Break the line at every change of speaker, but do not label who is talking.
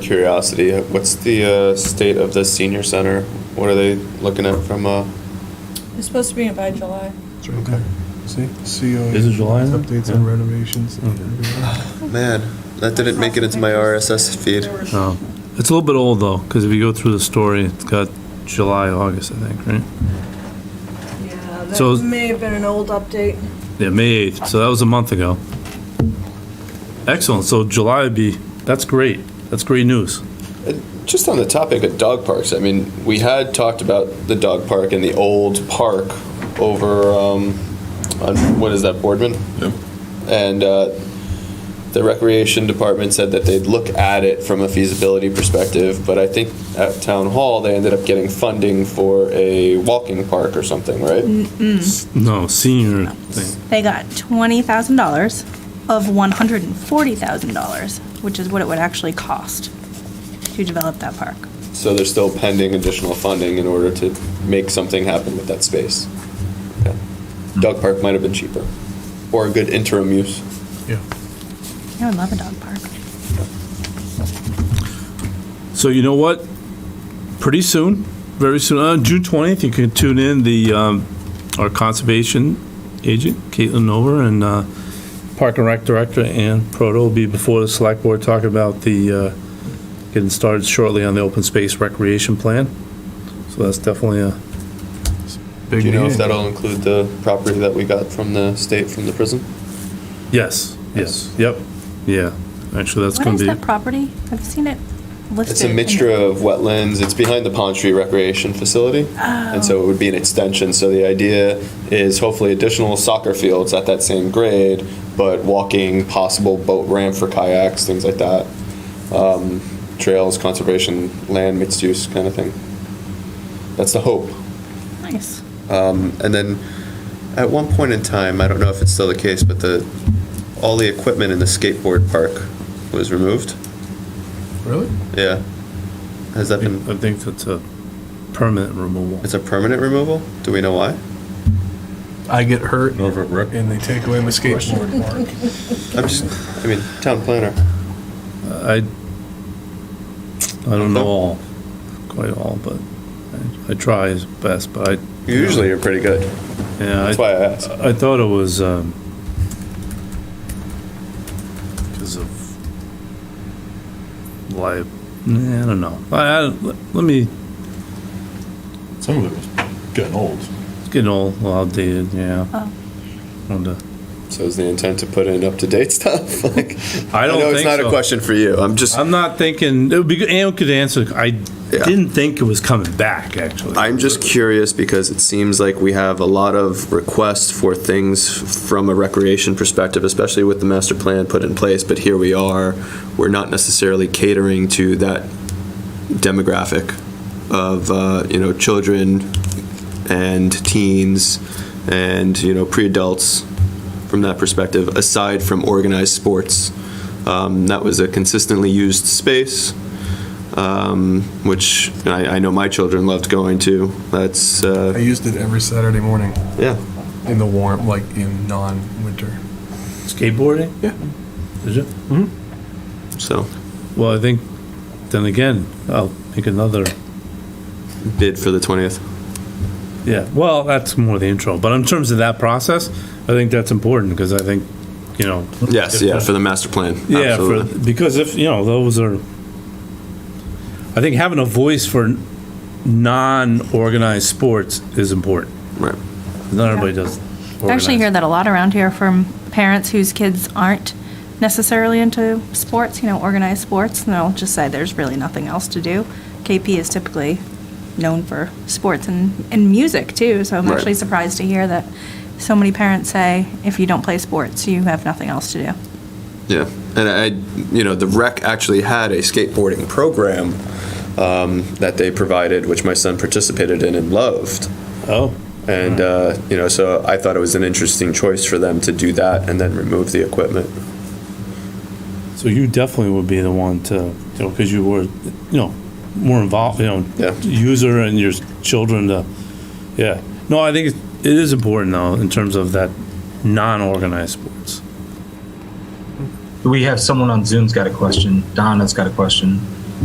Curiosity, uh, what's the uh, state of the senior center? What are they looking at from, uh,
It's supposed to be in by July.
It's right there. See? CO.
Is it July now?
Updates on renovations.
man, that didn't make it into my RSS feed.
Oh. It's a little bit old though, because if you go through the story, it's got July, August, I think, right?
Yeah,
So-
that may have been an old update.
Yeah, May 8th, so that was a month ago. Excellent, so July would be, that's great, that's great news.
Just on the topic of dog parks, I mean, we had talked about the dog park and the old park over, um, on, what is that, Boardman?
Yep.
And, uh, the recreation department said that they'd look at it from a feasibility perspective, but I think at town hall, they ended up getting funding for a walking park or something, right?
Mm-hmm.
No, senior thing,
They got twenty thousand dollars of one hundred and forty thousand dollars, which is what it would actually cost to develop that park.
So they're still pending additional funding in order to make something happen with that space. Okay. Dog park might have been cheaper, or a good interim use.
Yeah.
I would love a dog park.
So you know what? Pretty soon, very soon, uh, June 20th, you can tune in the, um, our conservation agent, Caitlin Over, and, uh, Park and Rec Director Ann Proto will be before the select board talking about the, uh, getting started shortly on the open space recreation plan. So that's definitely a
Do
Big
you know if
meeting.
that'll include the property that we got from the state, from the prison?
Yes, yes, yep, yeah. Actually, that's
What
going
is
to
that
be,
property? I've seen it listed.
It's a
in-
mixture of wetlands, it's behind the Pond Street Recreation Facility, and so it would be an extension, so the idea is hopefully additional soccer fields at that same grade, but walking, possible boat ramp for kayaks, things like that. Um, Trails, conservation, land, mixed use kind of thing. That's the hope. Um,
Nice.
And then, at one point in time, I don't know if it's still the case, but the, all the equipment in the skateboard park was removed,
Really?
yeah. Has that been?
I think that's a permanent removal.
It's a permanent removal? Do we know why?
I get hurt
Over at Rec.
and they take away my skateboard.
I'm just, I mean, town planner.
I, I don't know all, quite all, but I- I try as best, but I,
Usually you're pretty good.
yeah,
That's
I,
why I asked.
I thought it was, um, because of li, nah, I don't know. I, I, let me,
Some of it was getting old.
it's getting old, outdated, yeah.
Oh.
Wonder-
So is the intent to put in up-to-date stuff? Like,
I don't
know it's
think
not a
so.
question for you. I'm just,
I'm not thinking, it would be, good. Ann could answer, I
Yeah.
didn't think it was coming back, actually.
I'm just curious because it seems like we have a lot of requests for things from a recreation perspective, especially with the master plan put in place, but here we are. We're not necessarily catering to that demographic of, uh, you know, children and teens and, you know, pre-adults from that perspective, aside from organized sports. Um, That was a consistently used space um, which I, I know my children loved going to. That's
I
uh,
used it every Saturday morning
yeah.
in the warm, like in non-winter.
Skateboarding?
Yeah.
Did you?
So
Well, I think, then again, I'll make another,
bid for the twentieth.
yeah, well, that's more the intro, but in terms of that process, I think that's important, because I think, you know.
Yes, yeah, for the master plan.
Yeah, for,
Absolutely.
because if, you know, those are, I think having a voice for non-organized sports is important.
right.
Not everybody does.
I actually hear that a lot around here from parents whose kids aren't necessarily into sports, you know, organized sports, and they'll just say there's really nothing else to do. KP is typically known for sports and, and music too, so I'm
Right.
actually surprised to hear that so many parents say, if you don't play sports, you have nothing else to do.
Yeah, and I, you know, the rec actually had a skateboarding program um, that they provided, which my son participated in and loved.
Oh,
And uh, you know, so I thought it was an interesting choice for them to do that and then remove the equipment.
so you definitely would be the one to, you know, because you were, you know, more involved, you know,
Yeah.
user and your children to, yeah. No, I think it- it is important though, in terms of that non-organized sports.
We have someone on Zoom's got a question. Donna's got a question.